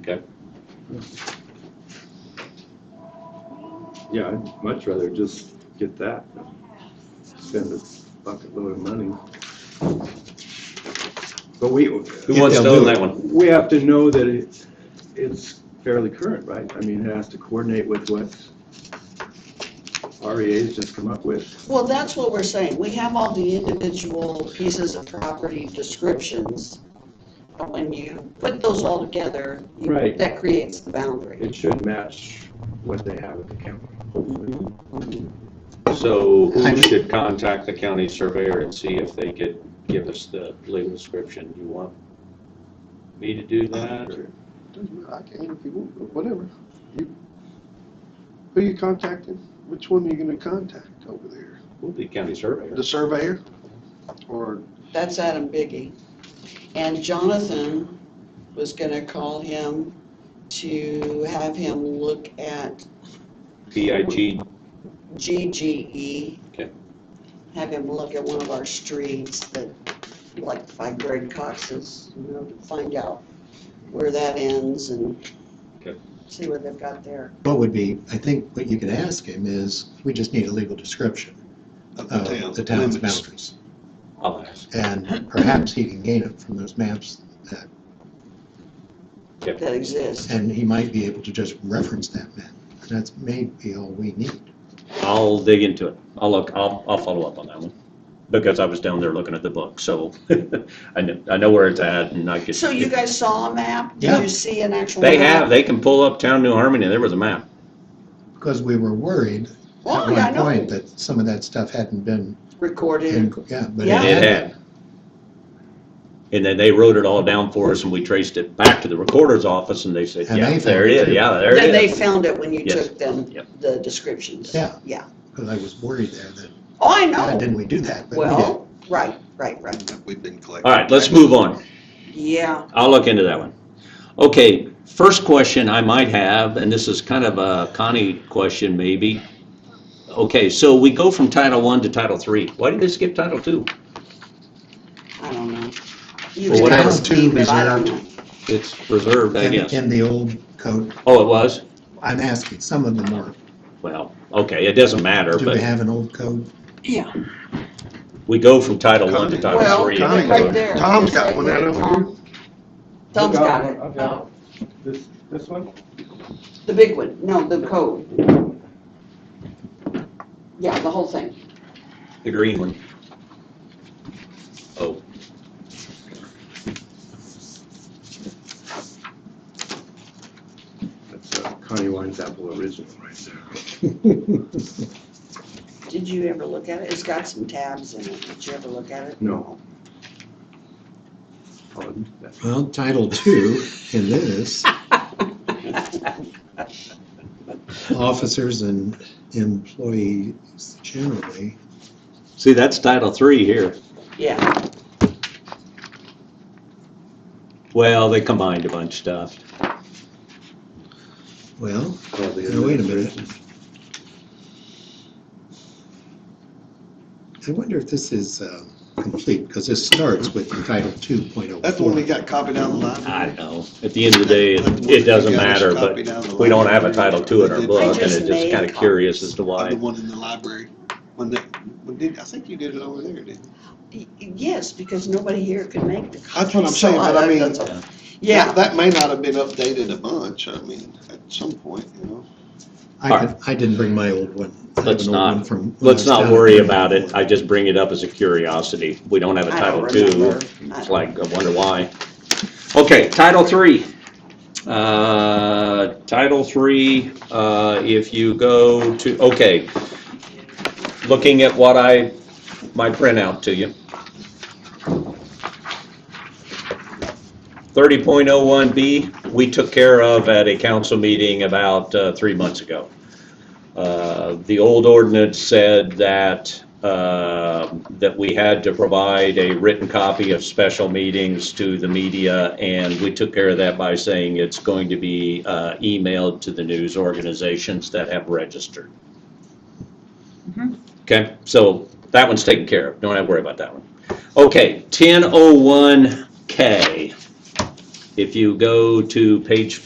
Okay. Yeah, I'd much rather just get that than spend a bucket load of money. But we. Who wants to own that one? We have to know that it's, it's fairly current, right? I mean, it has to coordinate with what REA's just come up with. Well, that's what we're saying. We have all the individual pieces of property descriptions. But when you put those all together, you- Right. that creates the boundary. It should match what they have at the county. So I who mean- should contact the county surveyor and see if they could give us the legal description? You want me to do that or? I can if you want, whatever. You, who you contacting? Which one are you gonna contact over there? We'll be county surveyor. The surveyor? Or, That's Adam Biggie. And Jonathan was gonna call him to have him look at BIG, GGE. Okay. E. Have him look at one of our streets that, like by Greg Cox's, you know, to find out where that ends and Okay. see what they've got there. What would be, I think what you could ask him is, we just need a legal description of the town. of the town's limits. boundaries. I'll ask. And perhaps he can gain it from those maps, that- that exists. and he might be able to just reference that map. And that's maybe all we need. I'll dig into it. I'll look, I'll, I'll follow up on that one. Because I was down there looking at the book, so I know, I know where it's at and I could. So you guys saw a map? Yeah. Did you see an actual? They map? have, they can pull up town New Harmony, there was a map. Because we were worried Oh, at yeah, I one know. point that some of that stuff hadn't been, Recorded. yeah, but Yeah. It it had. had. And then they wrote it all down for us and we traced it back to the recorder's office and they said, And yeah, they there it found it is, too. yeah, there Then it they is. found it when you Yes. took them, Yep. the descriptions. Yeah. Yeah. Because I was worried there that, Oh, I why know. didn't we do that? But we Well, right, right, right. We've been collecting. All right, let's move on. Yeah. I'll look into that one. Okay, first question I might have, and this is kind of a Connie question maybe. Okay, so we go from Title One to Title Three. Why did they skip Title Two? I don't know. You Well, can what ask happened to me, but I don't know. It's preserved, I did. guess. In- In the old code, Oh, it was? I'm asking, some of them were, Well, okay, it doesn't matter, do we but have an old code? Yeah. we go from Title One to Title Well, Three. Connie- right there. Tom's got one out over here. Tom- Tom's got it. I've got it. This, this one? The big one. No, the code. Yeah, the whole thing. The green one. Oh. That's uh, Connie Wine's apple original right there. Did you ever look at it? It's got some tabs in it. Did you ever look at it? No. I'll admit that. Well, Title Two in this. Officers and employees generally, See, that's Title Three here. Yeah, Well, they combined a bunch of stuff. well, Oh, the now wait a minute. administration. I wonder if this is uh, complete, because this starts with Title Two point oh That's the one we four. got copied out of the I don't library. know. At the end of the day, That's it the one it doesn't that got us matter, but copied out of the we don't have a library. Title II in They our did- book, and just it's made just kind of copies. curious as to The why. one in the library, when they, when did, I think you did it over there, didn't you? Y- yes, because nobody here can make the. That's what I'm So saying, but I mean- that's all. Yeah, That may not have been updated a bunch, I mean, at some point, you know? I could, I didn't bring my old one. I have Let's an old not- one from when I Let's was not down worry there. about it. I just bring it up as a curiosity. We don't have a I don't Title II. remember. I It's like, I wonder why. Okay, Title III. Uh, Title III, uh, if you go to, okay. Looking at what I, my printout to you. 30.01B, we took care of at a council meeting about uh, three months ago. Uh, The old ordinance said that, uh, that we had to provide a written copy of special meetings to the media, and we took care of that by saying it's going to be uh, emailed to the news organizations that have registered. Okay, so that one's taken care of, don't have to worry about that one. oh Okay, 1001K. If you go to page